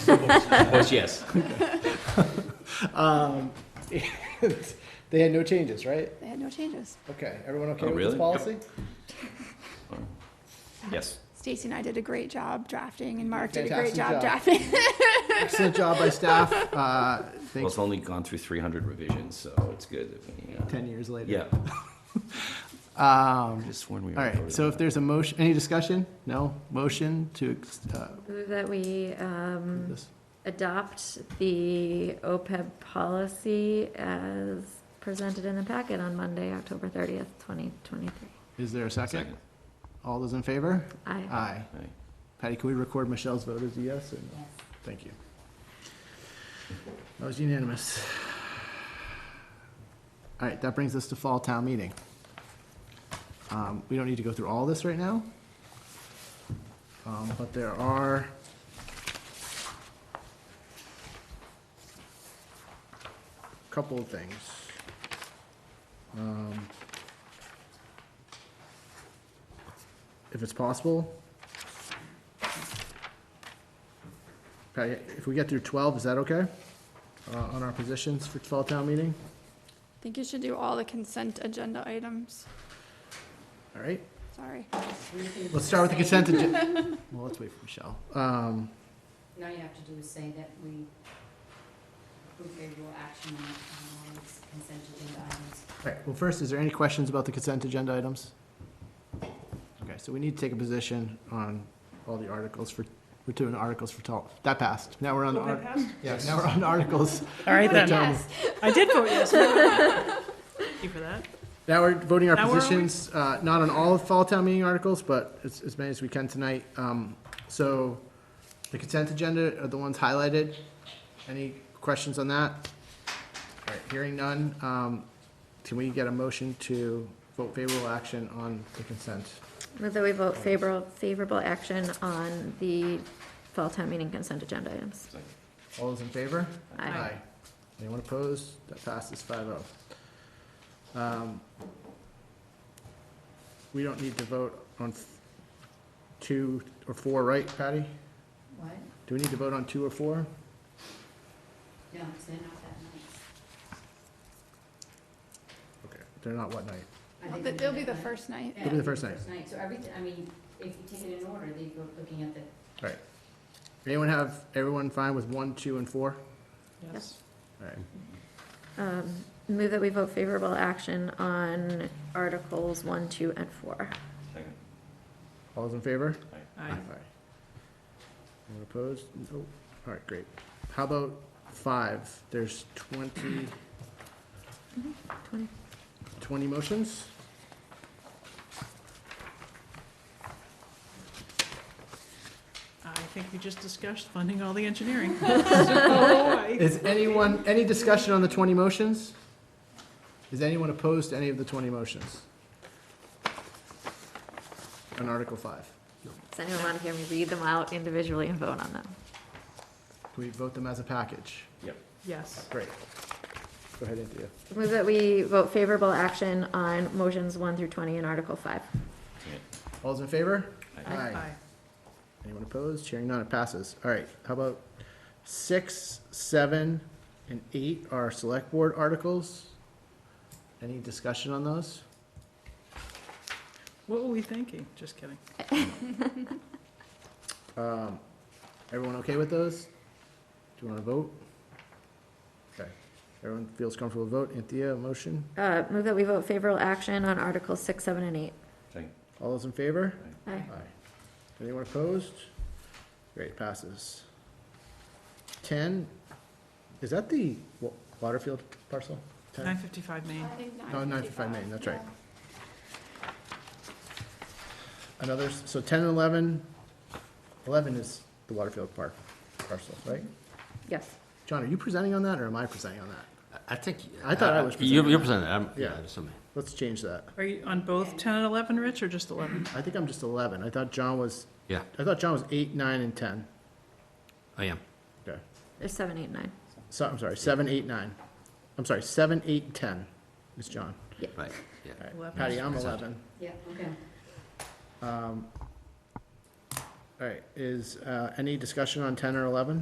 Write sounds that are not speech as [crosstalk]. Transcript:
Of course, yes. Um, [laughs] and They had no changes, right? They had no changes. Okay, everyone okay Oh, with really? this Yep. policy? Yes. Stacy and I did a great job drafting, and Mark did a Fantastic great job job. drafting. [laughs] Excellent job by staff. Uh, Well, Thanks, it's only gone through 300 revisions, so it's good. that we, uh, 10 years later. Yeah. Um, Just sworn we were All right, voted so on if that. there's a motion, any discussion? No? Motion to, ex- uh, Move that we um, this, adopt the OPEB policy as presented in the packet on Monday, October 30th, 2023. is there a second? Second. All those in favor? Aye. Aye. Aye. Patty, can we record Michelle's vote as a yes or no? Thank you. That was unanimous. All right, that brings us to fall town meeting. Um, We don't need to go through all this right now. Um, But there are. a Couple of things. Um, If it's possible, Patty, if we get through twelve, is that okay? Uh, on our positions for fall town meeting? I think you should do all the consent agenda items. All right, Sorry. let's start with the consent agenda. [laughs] Well, let's wait for Michelle. Um, Now you have to do is say that we approve favorable action on all these consent agenda items. all right, well, first, is there any questions about the consent agenda items? Okay, so we need to take a position on all the articles for, we're doing articles for twelve. That passed. Now we're on the. art- Yeah, now we're on [laughs] articles. All right then. Gentlemen. I did vote yes. Thank you for that. Now we're voting our Now we're on- positions, uh, not on all of fall town meeting articles, but as, as many as we can tonight. Um, so the consent agenda are the ones highlighted. Any questions on that? All right, hearing none, um, can we get a motion to vote favorable action on the consent? Move that we vote favorable, favorable action on the fall town meeting consent agenda items. All those in favor? Aye. Anyone opposed? That passes five oh. Um, we don't need to vote on f- two or four, right, Patty? What? Do we need to vote on two or four? No, 'cause they're not that nice. Okay. They're not what night? I think we It'll did be it the last- first night. Yeah, It'll be the first night. First night, so everything, I mean, if you take it in order, they go looking at the, All right. Anyone have, everyone fine with one, two, and four? Yes. All right. Um, Move that we vote favorable action on Articles 1, 2, and 4. Second. All those in favor? Aye. Anyone opposed? Nope. All right, great. How about five? There's twenty, 20. twenty motions? I think we just discussed funding all the engineering. So, I- Is anyone, any discussion on the twenty motions? Is anyone opposed to any of the twenty motions? On Article five? Does anyone want to hear me read them out individually and vote on them? Can we vote them as a package? Yes. Great. Go ahead, Anthea. Move that we vote favorable action on motions 1 through 20 in Article 5. All's in favor? Aye. Aye. Anyone opposed? Hearing none, it passes. All right, how about six, seven, and eight are select board articles? Any discussion on those? What were we thinking? Just kidding. Um, everyone okay with those? Do you wanna vote? Okay, everyone feels comfortable to vote. Anthea, a motion? Uh, Move that we vote favorable action on Articles 6, 7, and 8. Second. All those in favor? Aye. Anyone opposed? Great, passes. Ten, is that the Wa- Waterfield parcel? 10? 955 Main. Oh, Oh, 955 Main, that's right. Another, s- so 10 and 11, 11 is the Waterfield Park parcel, right? Yes. John, are you presenting on that, or am I presenting on that? I think. uh, I thought I was You're you're presenting, I'm, Yeah. yeah, there's something. Let's change that. Are you on both 10 and 11, Rich, or just 11? I think I'm just 11. I thought John was, Yeah, I thought John was 8, 9, and 10. I am. Okay. There's 7, 8, 9. So, I'm sorry, 7, 8, 9. I'm sorry, 7, 8, and 10 is John. Right, yeah. All right. Eleven. Patty, I'm Yes, I- 11. yeah, okay. Um, All right, is, uh, any discussion on ten or eleven?